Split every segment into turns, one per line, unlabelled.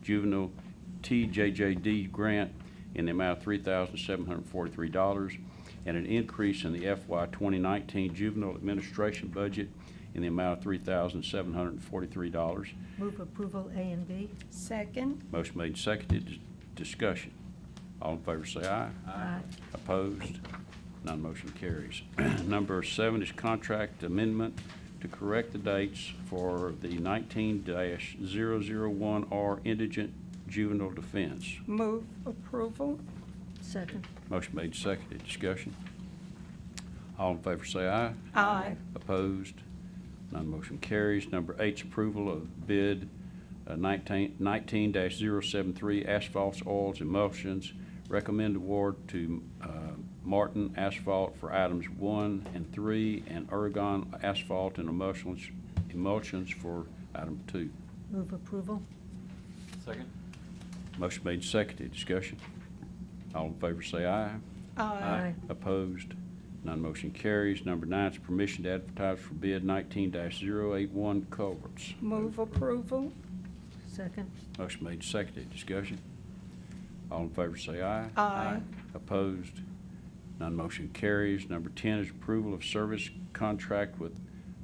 Juvenile TJJD Grant in the amount of $3,743, and an increase in the FY 2019 Juvenile Administration Budget in the amount of $3,743.
Move approval A and B.
Second.
Motion made, and seconded, Dis- discussion. All in favor say aye.
Aye.
Opposed? None motion carries. Number seven is contract amendment to correct the dates for the 19-001R indigent juvenile defense.
Move approval.
Second.
Motion made, and seconded, discussion. All in favor say aye.
Aye.
Opposed? None motion carries. Number eight's approval of bid uh, 19 19-073 asphalts, oils, emulsions. Recommend award to uh, Martin Asphalt for items one and three, and Ergon Asphalt and Emulsions emulsions for item two.
Move approval.
Second?
Motion made, seconded. Discussion. All in favor say aye.
Aye.
Opposed? None motion carries. Number nine is permission to advertise for bid 19-081 culverts.
Move approval.
Second.
Motion made, seconded. Discussion. All in favor say aye.
Aye.
Opposed? None motion carries. Number 10 is approval of service contract with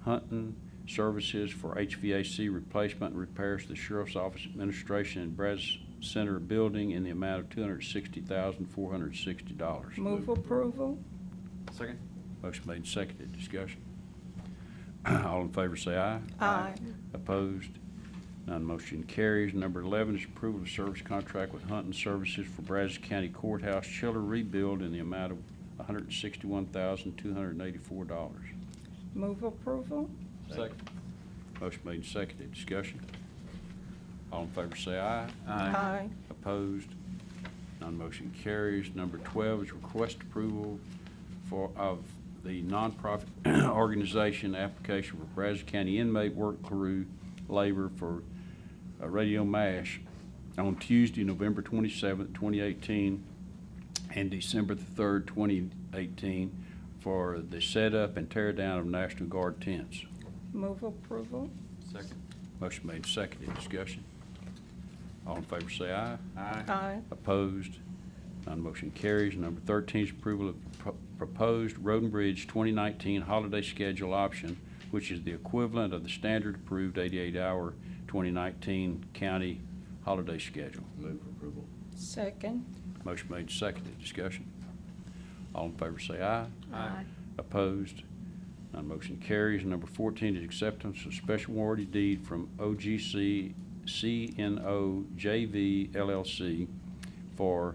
Hunting Services for HVAC replacement and repairs to the Sheriff's Office Administration and Brazos Center Building in the amount of $260,460.
Move approval.
Second?
Motion made, and seconded. Discussion. All in favor say aye.
Aye.
Opposed? None motion carries. Number 11 is approval of service contract with Hunting Services for Brazos County Courthouse chiller rebuild in the amount of $161,284.
Move approval.
Second?
Motion made, and seconded. Discussion. All in favor say aye.
Aye.
Opposed? Non-motion carries. Number 12 is request approval for, of the nonprofit organization application for Brazos County inmate work crew labor for uh, Radio MASH on Tuesday, November 27th, 2018, and December the 3rd, 2018, for the setup and tear down of National Guard tents.
Move approval.
Second?
Motion made, seconded. Discussion. All in favor, say aye.
Aye.
Opposed? None motion carries. Number 13 is approval of pro- proposed Road and Bridge 2019 holiday schedule option, which is the equivalent of the standard approved 88-hour 2019 county holiday schedule.
Move for approval.
Second.
Motion made, seconded. Discussion. All in favor say aye.
Aye.
Opposed? None motion carries. Number 14 is acceptance of special warranty deed from OGC CNO JV LLC for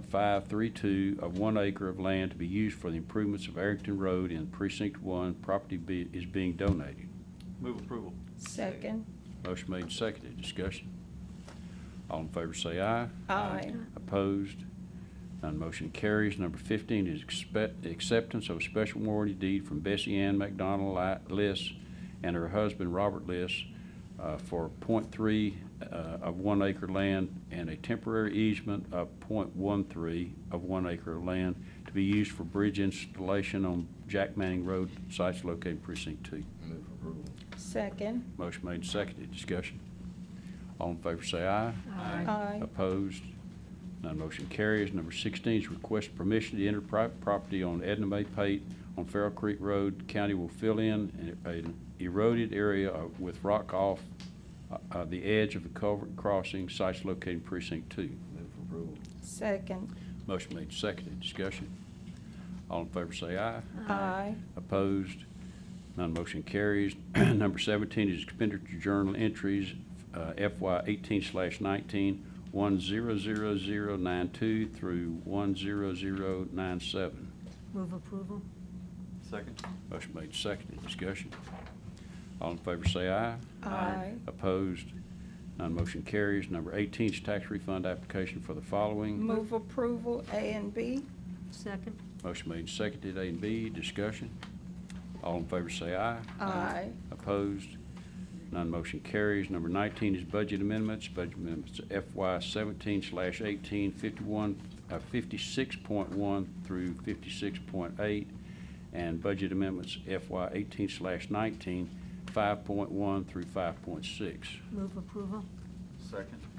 .532 of one acre of land to be used for the improvements of Arrington Road in Precinct 1. Property be- is being donated.
Move approval.
Second.
Motion made and seconded. Discussion. All in favor say aye.
Aye.
Opposed? None motion carries. Number 15 is expe- acceptance of a special warranty deed from Bessie Ann McDonald Li- Liss and her husband Robert Liss uh, for .3 uh, of one acre land and a temporary easement of .13 of one acre of land to be used for bridge installation on Jack Manning Road, sites located in precinct 2.
Move for approval.
Second.
Motion made, and seconded. Discussion. All in favor say aye.
Aye.
Opposed? None motion carries. Number 16 is request permission to enter private property on Edna May Pate on Farrell Creek Road. County will fill in an eroded area uh, with rock off uh, uh, the edge of the culvert crossing, sites located in precinct 2.
Move for approval.
Second.
Motion made, seconded. Discussion. All in favor say aye.
Aye.
Opposed? None motion carries. Number 17 is expenditure journal entries uh, FY 18/19, 100092 through 10097.
Move approval.
Second?
Motion made, seconded. Discussion. All in favor say aye.
Aye.
Opposed? None motion carries. Number 18 is tax refund application for the following.
Move approval A and B.
Second.
Motion made, seconded. A and B, discussion. All in favor say aye.
Aye.
Opposed? None motion carries. Number 19 is budget amendments. Budget amendments to FY 17 slash 18, 51, uh, 56.1 through 56.8, and budget amendments FY 18 slash 19, 5.1 through 5.6.
Move approval.
Second?